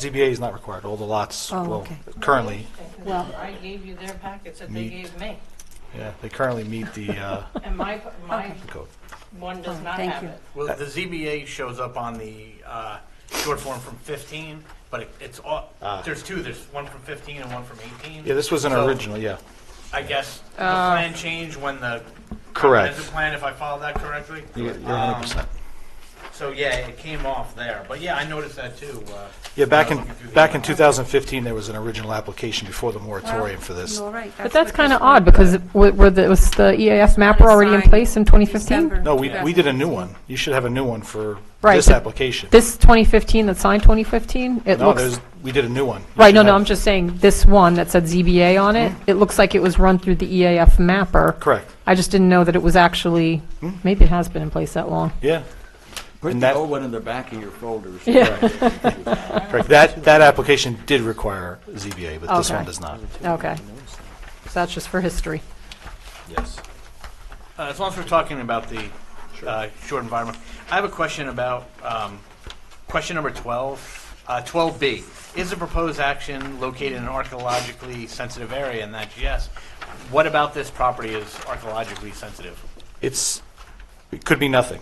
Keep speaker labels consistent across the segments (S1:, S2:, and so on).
S1: ZBA is not required, all the lots,
S2: Oh,
S1: well,
S2: okay.
S1: currently,
S2: Well-
S3: I gave you their packets that they
S1: Meet.
S3: gave me,
S1: yeah, they currently meet the uh,
S3: and my, my
S2: Okay.
S1: code.
S3: one
S2: All
S3: does
S2: right,
S3: not
S2: thank
S3: have
S2: you.
S3: it.
S4: Well,
S1: Uh,
S4: the ZBA shows up on the uh, short form from 15, but it- it's all,
S1: Ah.
S4: there's two, there's one from 15 and one from 18.
S1: Yeah, this was an
S4: So,
S1: original, yeah,
S4: I guess the plan changed when the.
S1: Correct.
S4: comprehensive plan, if I followed that correctly.
S1: you're you're
S4: Um,
S1: 100%.
S4: So, yeah, it came off there, but yeah, I noticed that too. uh,
S1: Yeah, back in,
S4: when I was looking through the
S1: back in
S4: email.
S1: 2015, there was an original application before the moratorium for this.
S2: You're right.
S5: But that's
S2: what
S5: kind of
S2: this one-
S5: odd, because it- wa- were the- was the EAF mapper already in
S2: Signed
S5: place in 2015?
S2: December
S1: No, we, we did a new
S2: 2015.
S1: one, you should have a new one for
S5: Right,
S1: this
S5: but
S1: application.
S5: This 2015 that signed 2015, it
S1: No,
S5: looks,
S1: there's, we did a new one. You
S5: right, no,
S1: should
S5: no,
S1: have-
S5: I'm just saying, this one that said ZBA on it, it looks like it was run through the EAF mapper.
S1: Hmm? Correct, Hmm?
S5: I just didn't know that it was actually, maybe it has been in place that long.
S1: yeah,
S6: Put
S1: And
S6: the
S1: that-
S6: old one in the back of your folders.
S1: correct. That, that application did require ZBA, but this
S5: Okay.
S1: one does not.
S5: Okay. So that's just for history.
S6: Yes.
S4: Uh, As long as we're talking about the uh, short environment, I have a question about, um, question number 12, uh, 12B. Is the proposed action located in an archaeologically sensitive area? And that's yes. What about this property is archaeologically sensitive?
S1: It's, it could be nothing.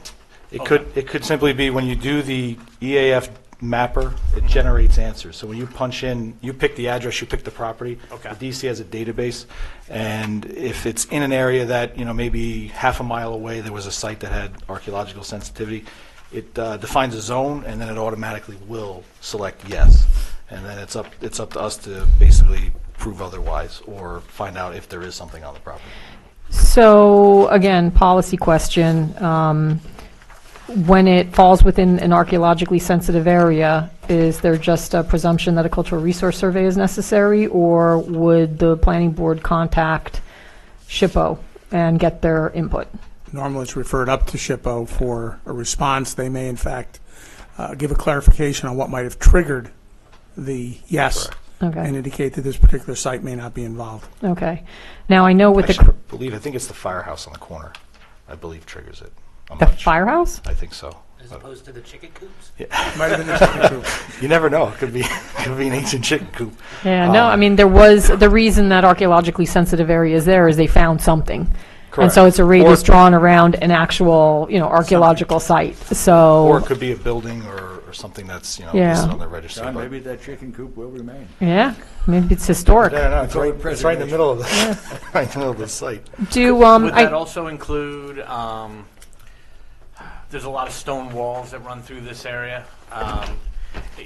S1: It could, it could simply be when you do the EAF mapper, it generates answers. So when you punch in, you pick the address, you pick the property.
S4: Okay.
S1: The DC has a database, and if it's in an area that, you know, maybe half a mile away, there was a site that had archaeological sensitivity, it uh, defines a zone, and then it automatically will select yes. And then it's up, it's up to us to basically prove otherwise, or find out if there is something on the property.
S5: So, again, policy question. um, When it falls within an archaeologically sensitive area, is there just a presumption that a cultural resource survey is necessary? Or would the planning board contact SHPO and get their input?
S7: Normally, it's referred up to SHPO for a response. They may, in fact, uh, give a clarification on what might have triggered the yes and
S5: Okay,
S7: indicate that this particular site may not be involved.
S5: okay. Now, I know with the,
S1: Actually,
S5: cr-
S1: I believe, I think it's the firehouse on the corner, I believe triggers it. I'm
S5: the
S1: not sure.
S5: firehouse?
S1: I think so.
S8: As opposed to the chicken coops?
S7: Might have been the second group.
S1: You never know, it could be, could be an ancient chicken coop.
S5: Yeah,
S1: Um.
S5: no, I mean, there was, the reason that archaeologically sensitive area is there is they found something. And so
S1: Correct.
S5: it's a radius
S1: Or-
S5: drawn around an actual, you know, archaeological site,
S1: Or it
S5: so,
S1: could be a building or, or something that's, you know,
S5: Yeah.
S1: listed on the registry.
S6: John,
S1: but-
S6: maybe that chicken coop will remain.
S5: yeah, maybe it's
S1: I
S5: historic.
S1: don't know, it's
S6: For
S1: right, it's right in the
S6: preservation.
S1: middle of the, right in the middle of the site.
S5: Do, um,
S4: Would that
S5: I,
S4: also include, um, there's a lot of stone walls that run through this area, um,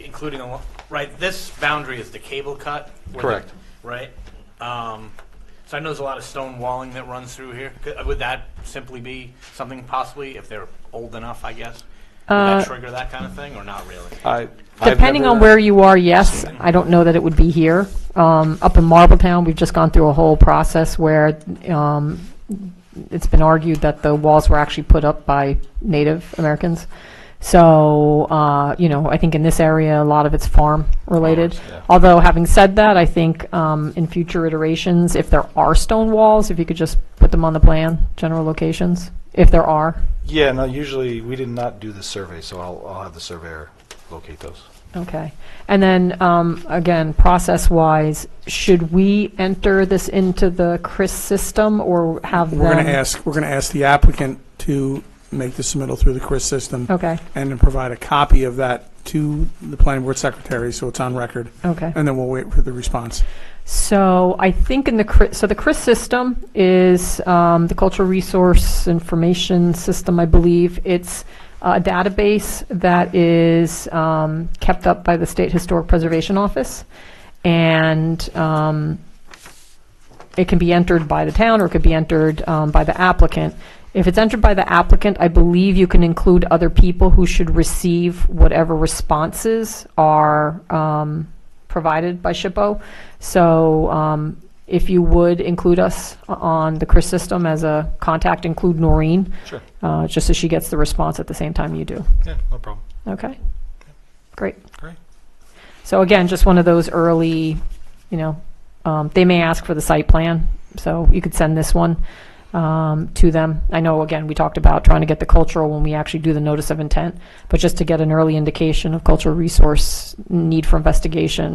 S4: including, a lo- right, this boundary is the cable cut? where the-
S1: Correct.
S4: Right? Um, So I know there's a lot of stone walling that runs through here. Could- Would that simply be something possibly, if they're old enough, I guess? Would
S5: Uh,
S4: that trigger that kind of thing, or not really?
S1: I- I've
S5: depending
S1: never-
S5: on where you are, yes, I don't know that it would be here. Um, up in Marbletown, we've just gone through a whole process where, um, it's been argued that the walls were actually put up by Native Americans. So, uh, you know, I think in this area, a lot of it's farm-related.
S1: Farmers, yeah.
S5: Although, having said that, I think um, in future iterations, if there are stone walls, if you could just put them on the plan, general locations, if there are.
S1: Yeah, no, usually, we did not do the survey, so I'll, I'll have the surveyor locate those.
S5: Okay. And then, um, again, process-wise, should we enter this into the CRIS system or have them?
S7: We're going to ask, we're going to ask the applicant to make the submittal through the CRIS system
S5: Okay,
S7: and then provide a copy of that to the planning board secretary, so it's on record,
S5: okay.
S7: and then we'll wait for the response.
S5: So I think in the, Cri- so the CRIS system is um, the Cultural Resource Information System, I believe. It's a database that is um, kept up by the State Historic Preservation Office, and um, it can be entered by the town, or it could be entered um, by the applicant. If it's entered by the applicant, I believe you can include other people who should receive whatever responses are um, provided by SHPO. So um, if you would include us on um, the CRIS system as a contact, include Noreen,
S1: Sure.
S5: uh, just so she gets the response at the same time you do.
S1: Yeah, no problem.
S5: Okay? Great.
S1: Great.
S5: So again, just one of those early, you know, um, they may ask for the site plan, so you could send this one. um, to them. I know, again, we talked about trying to get the cultural when we actually do the notice of intent, but just to get an early indication of cultural resource need for investigation